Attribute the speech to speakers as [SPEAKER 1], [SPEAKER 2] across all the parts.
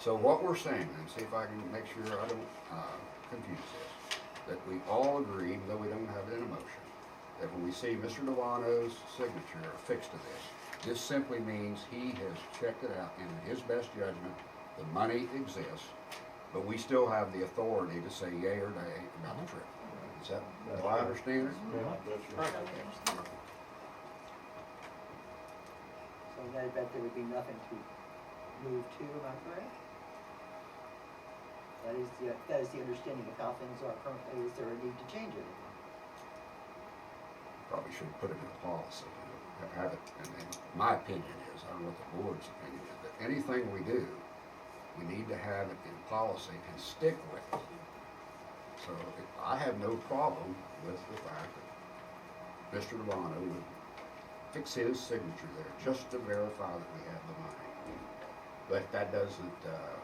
[SPEAKER 1] So what we're saying, and see if I can make sure I don't, uh, confuse this, that we all agreed, though we don't have it in a motion, that when we see Mr. Delano's signature affixed to this, this simply means he has checked it out and in his best judgment, the money exists, but we still have the authority to say yea or nay about the trip. Is that, do I understand it?
[SPEAKER 2] So then I bet there would be nothing to move to, am I correct? That is the, that is the understanding of how things are currently, is there a need to change anything?
[SPEAKER 1] Probably should put it in a policy, you know, have it, and, and my opinion is, I don't know what the board's opinion is, but anything we do, we need to have it in policy and stick with it. So if- I have no problem with the fact that Mr. Delano would fix his signature there just to verify that we have the money. But that doesn't, uh,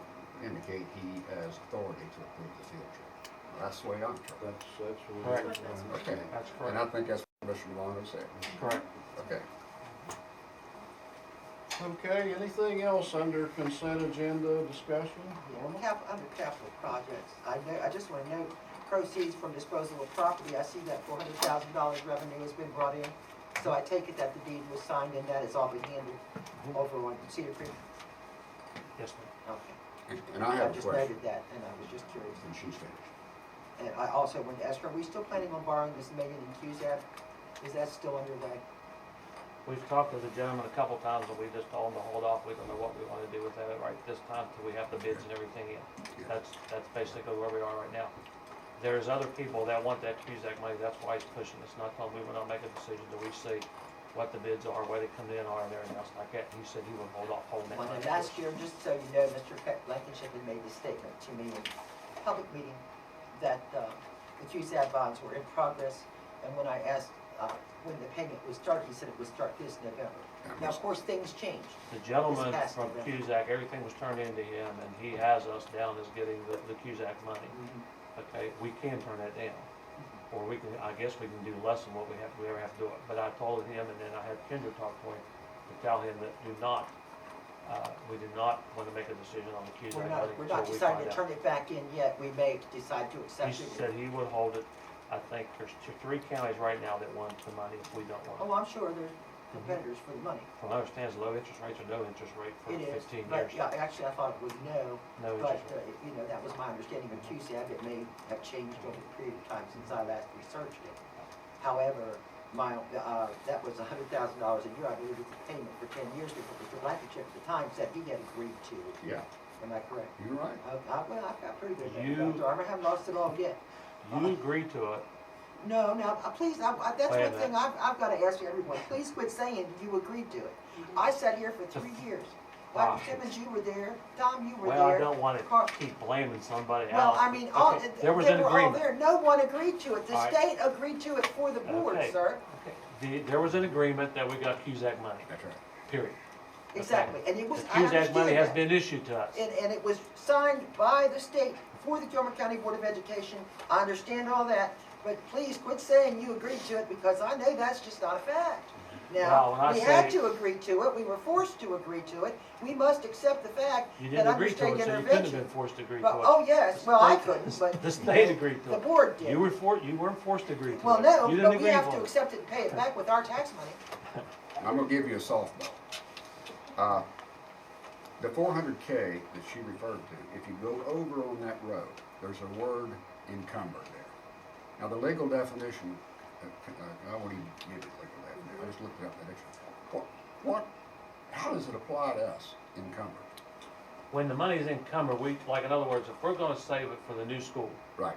[SPEAKER 1] indicate he has authority to approve the field trip. That's the way I'm trying.
[SPEAKER 3] That's, that's what it
[SPEAKER 4] Correct.
[SPEAKER 3] is.
[SPEAKER 1] Okay,
[SPEAKER 4] That's
[SPEAKER 1] and I
[SPEAKER 4] correct.
[SPEAKER 1] think that's what Mr. Delano said.
[SPEAKER 4] Correct.
[SPEAKER 1] Okay.
[SPEAKER 3] Okay, anything else under consent agenda discussion? Norma?
[SPEAKER 2] Cap, under capital projects, I know, I just wanna note, proceeds from disposal of property, I see that four hundred thousand dollars revenue has been brought in. So I take it that the deed was signed and that is all been handed over on Cedar Creek?
[SPEAKER 4] Yes, ma'am.
[SPEAKER 2] Okay.
[SPEAKER 1] And and I have a
[SPEAKER 2] just
[SPEAKER 1] question,
[SPEAKER 2] noted that, and I was just curious.
[SPEAKER 1] and she's finished.
[SPEAKER 2] And I also wanted to ask, are we still planning on borrowing this million in Cusack? Is that still underway?
[SPEAKER 4] We've talked to the gentleman a couple times, and we just told him to hold off. We don't know what we want to do with that right this time till we have the bids and everything in. That's, that's basically where we are right now. There's other people that want that Cusack money, that's why he's pushing us, not telling, we will not make a decision till we see what the bids are, where they come in, are, and everything else like that. He said he would hold off, holding that
[SPEAKER 2] Well,
[SPEAKER 4] money.
[SPEAKER 2] then last year, just so you know, Mr. Pe- Blankenship had made the statement to me in public meeting that uh, the Cusack bonds were in progress, and when I asked uh, when the payment would start, he said it would start this November. Now, of course, things changed.
[SPEAKER 4] The gentleman
[SPEAKER 2] It's passed
[SPEAKER 4] from
[SPEAKER 2] to them.
[SPEAKER 4] Cusack, everything was turned into him, and he has us down as getting the, the Cusack money. okay, we can turn that down.
[SPEAKER 2] Mm-hmm.
[SPEAKER 4] Or we can, I guess we can do less than what we have, we ever have to do it. But I told him, and then I had Kendra talk to him, to tell him that do not, uh, we do not want to make a decision on the
[SPEAKER 2] We're
[SPEAKER 4] Cusack money
[SPEAKER 2] not, we're
[SPEAKER 4] until
[SPEAKER 2] not
[SPEAKER 4] we
[SPEAKER 2] deciding to
[SPEAKER 4] find out.
[SPEAKER 2] turn it back in yet, we may decide to
[SPEAKER 4] He
[SPEAKER 2] accept
[SPEAKER 4] said
[SPEAKER 2] it.
[SPEAKER 4] he would hold it. I think there's two, three counties right now that want the money if we don't want
[SPEAKER 2] Oh,
[SPEAKER 4] it.
[SPEAKER 2] I'm sure there's competitors for the money.
[SPEAKER 4] From what I understand, it's low interest rates or no interest rate for
[SPEAKER 2] It is,
[SPEAKER 4] fifteen years.
[SPEAKER 2] but yeah, actually, I thought it was no,
[SPEAKER 4] No
[SPEAKER 2] But,
[SPEAKER 4] interest
[SPEAKER 2] uh,
[SPEAKER 4] rate.
[SPEAKER 2] you know, that was my understanding of QCAB, it may have changed over a period of time since I last researched it. However, my, uh, that was a hundred thousand dollars a year, I believe it's a payment for ten years, because Mr. Blankenship at the time said he had agreed to, it.
[SPEAKER 1] Yeah,
[SPEAKER 2] am I correct?
[SPEAKER 1] you're right.
[SPEAKER 2] Uh, I, well, I've got pretty good,
[SPEAKER 4] You-
[SPEAKER 2] memory, Dr. Armour, I haven't lost it all yet.
[SPEAKER 4] You agree to it.
[SPEAKER 2] No, now, uh, please, I, I, that's
[SPEAKER 4] Wait a
[SPEAKER 2] one thing
[SPEAKER 4] minute.
[SPEAKER 2] I've, I've gotta ask everyone, please quit saying you agreed to it. I sat here for three years,
[SPEAKER 4] Wow.
[SPEAKER 2] Dr. Simmons, you were there, Tom, you were there.
[SPEAKER 4] Well, I don't want
[SPEAKER 2] Car-
[SPEAKER 4] to keep blaming somebody
[SPEAKER 2] Well,
[SPEAKER 4] else.
[SPEAKER 2] I mean, all,
[SPEAKER 4] Okay,
[SPEAKER 2] they
[SPEAKER 4] there
[SPEAKER 2] were
[SPEAKER 4] was an
[SPEAKER 2] all
[SPEAKER 4] agreement.
[SPEAKER 2] there, no one agreed to it, the
[SPEAKER 4] All right.
[SPEAKER 2] state agreed to it for the board,
[SPEAKER 4] Okay.
[SPEAKER 2] sir.
[SPEAKER 4] The, there was an agreement that we got Cusack money,
[SPEAKER 1] That's right.
[SPEAKER 4] period. Okay.
[SPEAKER 2] Exactly, and it
[SPEAKER 4] The
[SPEAKER 2] was, I
[SPEAKER 4] Cusack money
[SPEAKER 2] understand
[SPEAKER 4] has
[SPEAKER 2] that.
[SPEAKER 4] been issued to us.
[SPEAKER 2] And, and it was signed by the state for the Gilmer County Board of Education, I understand all that, but please quit saying you agreed to it, because I know that's just not a fact.
[SPEAKER 4] Well, when I
[SPEAKER 2] Now, we had
[SPEAKER 4] say-
[SPEAKER 2] to agree to it, we were forced to agree to it, we must accept the fact
[SPEAKER 4] You
[SPEAKER 2] that
[SPEAKER 4] didn't
[SPEAKER 2] under
[SPEAKER 4] agree to
[SPEAKER 2] state
[SPEAKER 4] it, so you
[SPEAKER 2] intervention.
[SPEAKER 4] couldn't have been forced to agree to
[SPEAKER 2] Well,
[SPEAKER 4] it.
[SPEAKER 2] oh, yes, well, I couldn't, but.
[SPEAKER 4] The state agreed to
[SPEAKER 2] The
[SPEAKER 4] it.
[SPEAKER 2] board did.
[SPEAKER 4] You were for, you weren't forced to agree to it.
[SPEAKER 2] Well,
[SPEAKER 4] You
[SPEAKER 2] no,
[SPEAKER 4] didn't
[SPEAKER 2] but we
[SPEAKER 4] agree
[SPEAKER 2] have
[SPEAKER 4] for
[SPEAKER 2] to
[SPEAKER 4] it.
[SPEAKER 2] accept it and pay it back with our tax money.
[SPEAKER 1] I'm gonna give you a softball. Uh, the four hundred K that she referred to, if you go over on that road, there's a word encumber there. Now, the legal definition, uh, uh, I won't even give it legal definition, I just looked it up in the dictionary. What, what, how does it apply to us, encumbered?
[SPEAKER 4] When the money's encumbered, we, like, in other words, if we're gonna save it for the new school,
[SPEAKER 1] Right,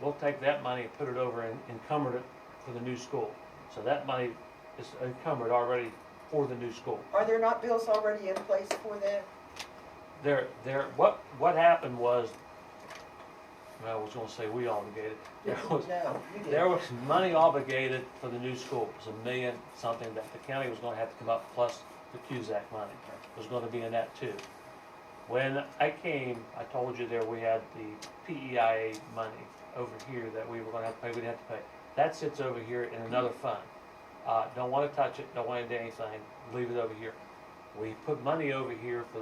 [SPEAKER 4] we'll take that money and put it over and encumbered it for the new school. So that money is encumbered already for the new school.
[SPEAKER 2] Are there not bills already in place for that?
[SPEAKER 4] There, there, what, what happened was, I was gonna say we obligated. There was,
[SPEAKER 2] No, you didn't.
[SPEAKER 4] There was money obligated for the new school, it was a million something that the county was gonna have to come up, plus the Cusack money was gonna be in that too. When I came, I told you there we had the PEIA money over here that we were gonna have to pay, we didn't have to pay. That sits over here in another fund. Uh, don't wanna touch it, don't wanna do anything, leave it over here. We put money over here for